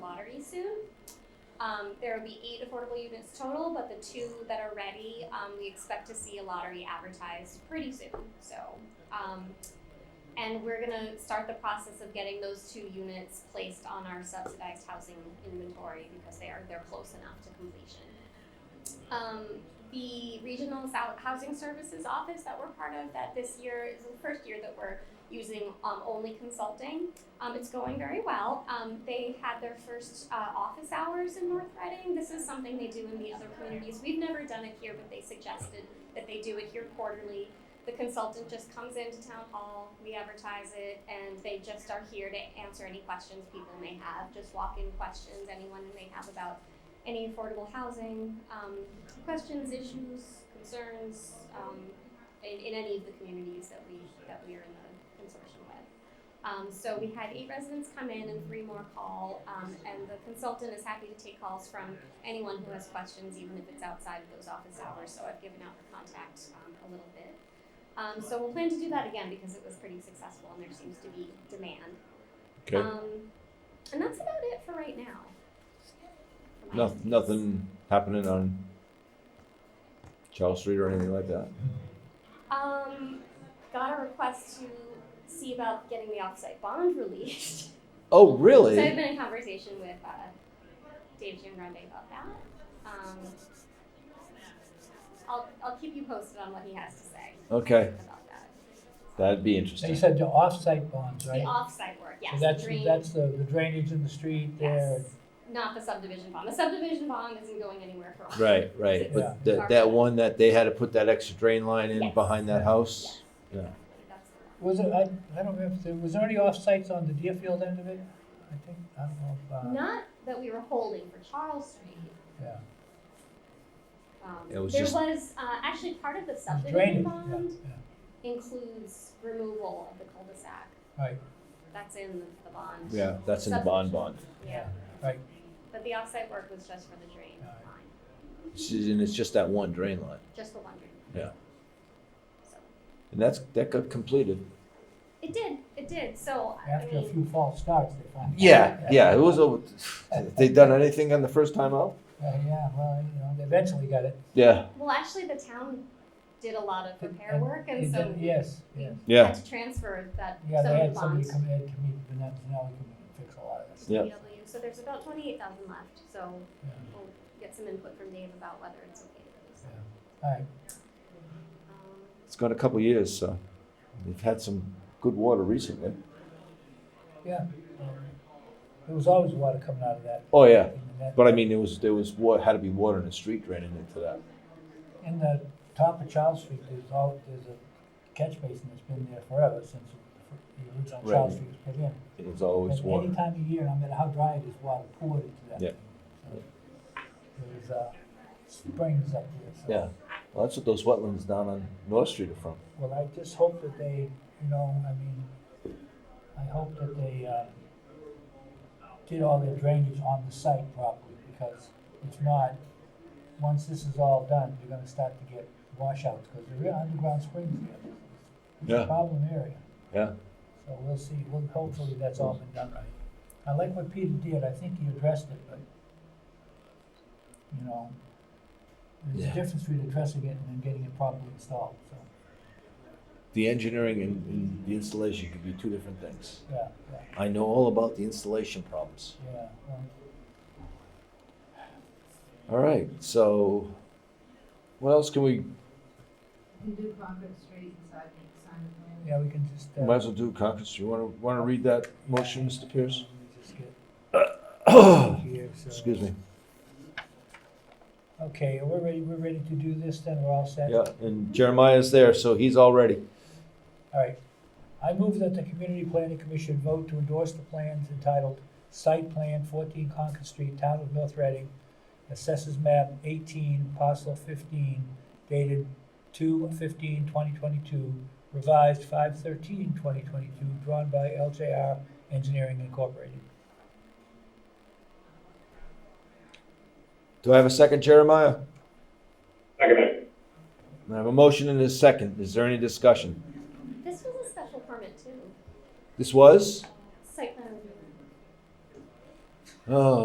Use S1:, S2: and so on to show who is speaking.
S1: soon. Um, there will be eight affordable units total, but the two that are ready, um, we expect to see a lottery advertised pretty soon. So, um, and we're gonna start the process of getting those two units placed on our subsidized housing inventory because they are they're close enough to completion. Um, the regional sou- housing services office that we're part of that this year is the first year that we're using um, only consulting um, it's going very well. Um, they had their first uh, office hours in North Reading. This is something they do in the other communities. We've never done it here, but they suggested that they do it here quarterly. The consultant just comes into town hall, we advertise it, and they just are here to answer any questions people may have, just walk in questions anyone may have about any affordable housing, um, questions, issues, concerns um, in, in any of the communities that we, that we are in the consortium with. Um, so we had eight residents come in and three more call, um, and the consultant is happy to take calls from anyone who has questions, even if it's outside of those office hours. So I've given out the contact um, a little bit. Um, so we'll plan to do that again because it was pretty successful and there seems to be demand.
S2: Okay.
S1: Um, and that's about it for right now. For my
S2: No, nothing happening on Charles Street or anything like that.
S1: Um, got a request to see about getting the offsite bond released.
S2: Oh,
S1: So I've
S2: really?
S1: been in conversation with uh, Dave Giangrande about that. Um, I'll, I'll keep you posted on what he has to say
S2: Okay,
S1: about that.
S2: that'd be
S3: You
S2: interesting.
S3: said the off-site bonds,
S1: The
S3: right?
S1: off-site work, yes.
S3: So that's,
S1: drain-
S3: that's the the drainage in the street there.
S1: yes. Not the subdivision bond. The subdivision bond isn't going anywhere for a while.
S2: Right, right.
S3: Yeah.
S2: But that, that one that they had to put that extra drain line in
S1: Yes.
S2: behind that house?
S1: Yeah.
S2: Yeah.
S1: That's the one.
S3: Was it, I, I don't remember, if there- was there any off-sites on the Deerfield end of it? I think, I don't know if, uh,
S1: Not that we were holding for Charles Street.
S3: yeah.
S1: Um,
S2: It was
S1: there
S2: just-
S1: was uh, actually part of the subdivision
S3: drainage, yeah,
S1: bond
S3: yeah.
S1: includes removal of the cul-de-sac.
S3: Right.
S1: That's in the bond.
S2: Yeah, that's in the bond bond.
S1: Yeah.
S3: Right.
S1: But the offsite work was just for the drain
S3: Alright.
S1: line,
S2: It's- And it's just that one drain line.
S1: just the one drain.
S2: Yeah.
S1: So,
S2: And that's, that got completed.
S1: it did, it did, so, I
S3: After a
S1: mean,
S3: few false starts, they Uh, finally.
S2: Yeah, yeah, it was, over- they done anything on the first time out?
S3: Uh, Yeah, well, you know, they eventually got it.
S2: Yeah,
S1: well, actually, the town did a lot of repair
S3: And
S1: work, and
S3: they
S1: so
S3: did- Yes, yes.
S1: we had
S2: yeah,
S1: to transfer that,
S3: Yeah,
S1: some
S3: they
S1: of the
S3: had somebody
S1: bonds to
S3: come in, to meet, but now now we can fix a lot of this.
S2: Yeah.
S1: DPW, so there's about twenty-eight thousand left, so
S3: Yeah.
S1: we'll get some input from Dave about whether it's okay to release that.
S3: All right,
S1: Um,
S2: it's gone a couple years, so they've had some good water recently.
S3: yeah. There was always water coming out of that.
S2: Oh, yeah.
S3: in that-
S2: But I mean, there was there was wa- had to be water in the street draining into that.
S3: In the top of Charles Street, there's all, there's a catch basin that's been there forever since the original
S2: Right.
S3: Charles Street was put in.
S2: It was always
S3: And
S2: water.
S3: any time of year, no matter how dry it is, water poured into that.
S2: Yeah.
S3: thing. So There's, uh, springs up there, so.
S2: Yeah. Well, that's what those wetlands down on North Street are from.
S3: Well, I just hope that they, you know, I mean, I hope that they, uh, did all their drainage on the site properly, because if not, once this is all done, you're gonna start to get washouts, because there are underground springs there. It's a
S2: Yeah.
S3: problem area,
S2: Yeah.
S3: so we'll see, well, hopefully that's all been done right. I like what Peter did, I think he addressed it, but, you know, there's
S2: Yeah.
S3: a difference between addressing it and then getting it properly installed, so,
S2: The engineering and, and the installation could be two different things.
S3: yeah, yeah.
S2: I know all about the installation problems.
S3: Yeah, um, well,
S2: All right. So, what else can we?
S4: You do Concord Street and Siding, Simon Lane.
S3: yeah, we can just. uh,
S2: Might as well do conference. You want to want to read that motion, Mr. Pierce?
S3: let me just get here, so-
S2: Excuse me.
S3: Okay, we're ready, we're ready to do this then, we're all set?
S2: Yeah. And Jeremiah's there, so he's all ready.
S3: All right. I move that the Community Planning Commission vote to endorse the plans entitled Site Plan fourteen Concord Street, Town of North Reading, Assessors Map eighteen, parcel fifteen, dated 2022, revised 2022, drawn by LJR Engineering Incorporated.
S2: Do I have a second, Jeremiah?
S5: Second it.
S2: I have a motion and a second. Is there any discussion?
S1: This was a special permit too,
S2: This was.
S1: site plan review.
S2: Oh,